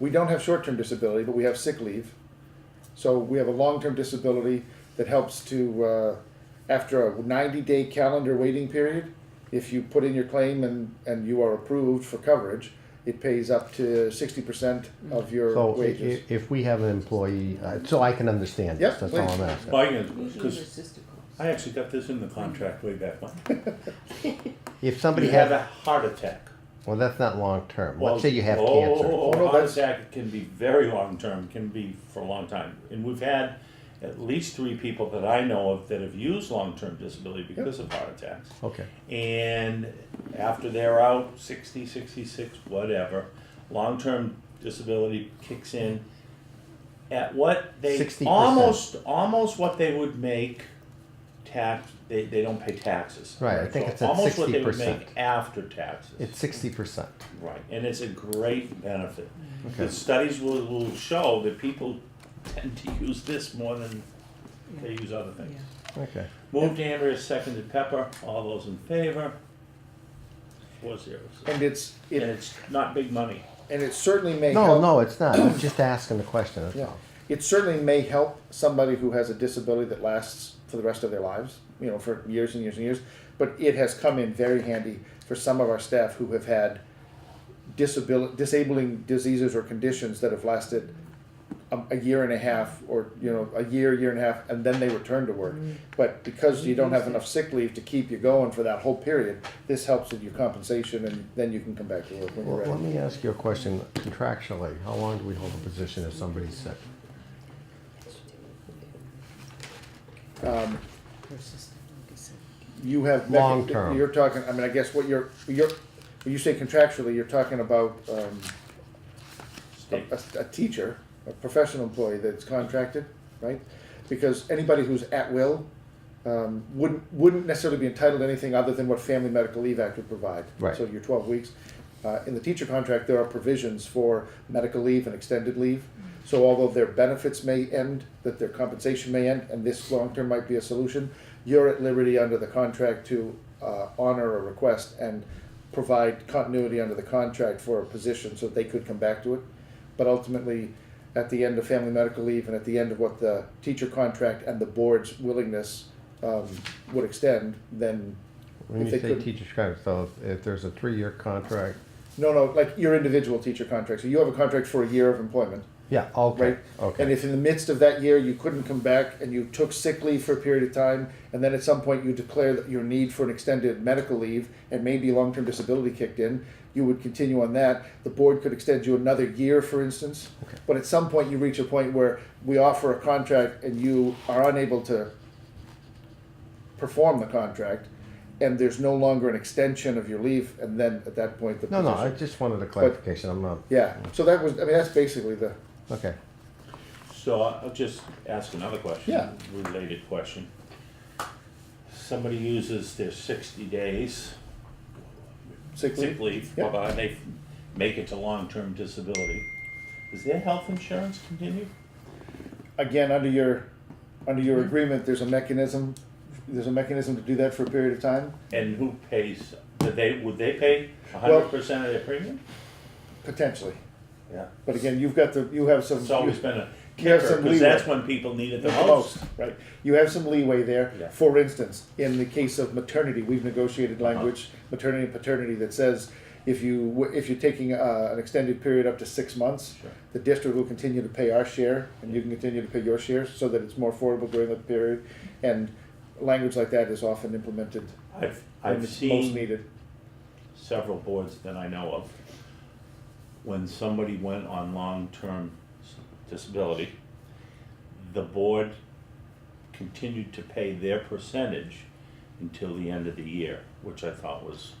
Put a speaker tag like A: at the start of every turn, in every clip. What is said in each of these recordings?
A: we don't have short-term disability, but we have sick leave. So we have a long-term disability that helps to, uh, after a ninety-day calendar waiting period, if you put in your claim and, and you are approved for coverage, it pays up to sixty percent of your
B: So i- i-
A: wages.
B: if we have an employee, uh, so I can understand
A: Yep,
B: this, that's all I'm
A: please.
B: asking.
C: I can,
D: Usually your
C: because
D: sister calls.
C: I actually got this in the contract way back when.
B: If somebody
C: You have a
B: has,
C: heart attack.
B: well, that's not long-term,
C: Well,
B: let's say you have
C: oh,
B: cancer.
C: Oh, oh,
A: Oh, no,
C: heart
A: that's-
C: attack can be very long term, can be for a long time. And we've had at least three people that I know of that have used long term disability because of heart attacks.
B: Okay,
C: And after they're out, 60, 66, whatever, long term disability kicks in at what they
B: 60%.
C: almost almost what they would make tax they, they don't pay taxes
B: Right, I think it's at
C: almost what they would
B: 60%.
C: make after taxes
B: it's sixty percent.
C: Right, and it's a great benefit.
B: Okay.
C: The studies will, will show that people tend to use this more than they use other things.
B: Okay,
C: Moved Andrea, seconded Pepper, all those in favor? Four zeros. And
A: And it's, it,
C: it's not big money.
A: and it certainly may help.
B: no, no, it's not, I'm just asking the question, that's
A: Yeah,
B: all.
A: it certainly may help somebody who has a disability that lasts for the rest of their lives, you know, for years and years and years. But it has come in very handy for some of our staff who have had disabil- disabling diseases or conditions that have lasted a, a year and a half or, you know, a year, year and a half, and then they return to work. But because you don't have enough sick leave to keep you going for that whole period, this helps with your compensation and then you can come back to work when you're
B: Well, let
A: ready.
B: me ask you a question contractually, how long do we hold a position if somebody's sick?
A: Um,
D: Her sister, like I said.
A: You have.
B: Long term.
A: You're talking, I mean, I guess what you're, you're, when you say contractually, you're talking about, um, a,
C: State.
A: a- a teacher, a professional employee that's contracted, right? Because anybody who's at will, um, wouldn't, wouldn't necessarily be entitled to anything other than what Family Medical Leave Act would provide.
B: Right.
A: So your twelve weeks. Uh, in the teacher contract, there are provisions for medical leave and extended leave. So although their benefits may end, that their compensation may end, and this long-term might be a solution, you're at liberty under the contract to, uh, honor a request and provide continuity under the contract for a position so that they could come back to it. But ultimately, at the end of family medical leave and at the end of what the teacher contract and the board's willingness um, would extend, then
B: When
A: If
B: you
A: they
B: say
A: couldn't-
B: teacher's contract, so if- if there's a three-year contract,
A: no, no, like your individual teacher contract. So you have a contract for a year of employment,
B: yeah, okay,
A: right? And
B: okay,
A: if in the midst of that year you couldn't come back and you took sick leave for a period of time, and then at some point you declare that your need for an extended medical leave and maybe long term disability kicked in, you would continue on that. The board could extend you another year, for instance.
B: Okay.
A: But at some point you reach a point where we offer a contract and you are unable to perform the contract. And there's no longer an extension of your leave, and then at that point the
B: no, no, I
A: position-
B: just wanted a clarification, I'm not,
A: yeah. So that was I mean that's basically the
B: okay.
C: So I'll just ask another question.
A: Yeah.
C: Related question. Somebody uses their sixty days.
A: sick leave.
C: sick leave,
A: Yep.
C: uh, they f- make it to long-term disability, does their health insurance continue?
A: again, under your, under your
C: Mm-hmm.
A: agreement, there's a mechanism, there's a mechanism to do that for a period of time,
C: And who pays, do they, would they pay a hundred percent of their premium?
A: potentially.
C: Yeah.
A: But again, you've got the, you have some.
C: It's always been a
A: You have
C: kicker,
A: some
C: cause that's
A: leeway.
C: when people need it
A: The
C: the most.
A: most, right? You have some leeway there.
C: Yeah.
A: For instance, in the case of maternity, we've negotiated
C: Uh-huh.
A: language, maternity and paternity, that says if you, w- if you're taking uh, an extended period up to six months,
C: Sure.
A: the district will continue to pay our share and you can continue to pay your share so that it's more affordable during that period. And language like that is often implemented
C: I've,
A: when
C: I've
A: it's most
C: seen
A: needed.
C: several boards that I know of, when somebody went on long-term s- disability, the board continued to pay their percentage until the end of the year, which I thought was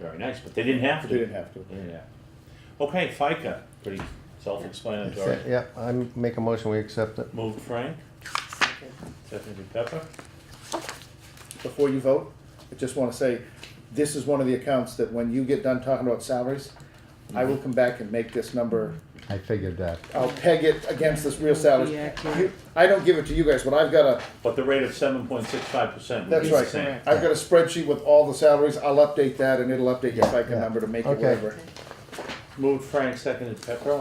C: very nice, but they didn't have to.
A: They didn't have to.
C: Yeah. Okay, FICA, pretty self-explanatory.
B: Yeah, I make a motion, we accept it.
C: Moved Frank, seconded Pepper.
A: before you vote, I just wanna say, this is one of the accounts that when you get done talking about salaries, I
C: Mm-hmm.
A: will come back and make this number,
B: I figured that.
A: I'll peg it against this real salary.
D: Yeah, yeah.
A: You- I don't give it to you guys, but I've got a,
C: But the rate of seven point six five percent would
A: that's
C: be the
A: right,
C: same.
A: I've got a spreadsheet with all the salaries, I'll update that and it'll update your FICA
B: yeah.
A: number to make it
B: Okay.
A: whatever.
C: Moved Frank, seconded Pepper,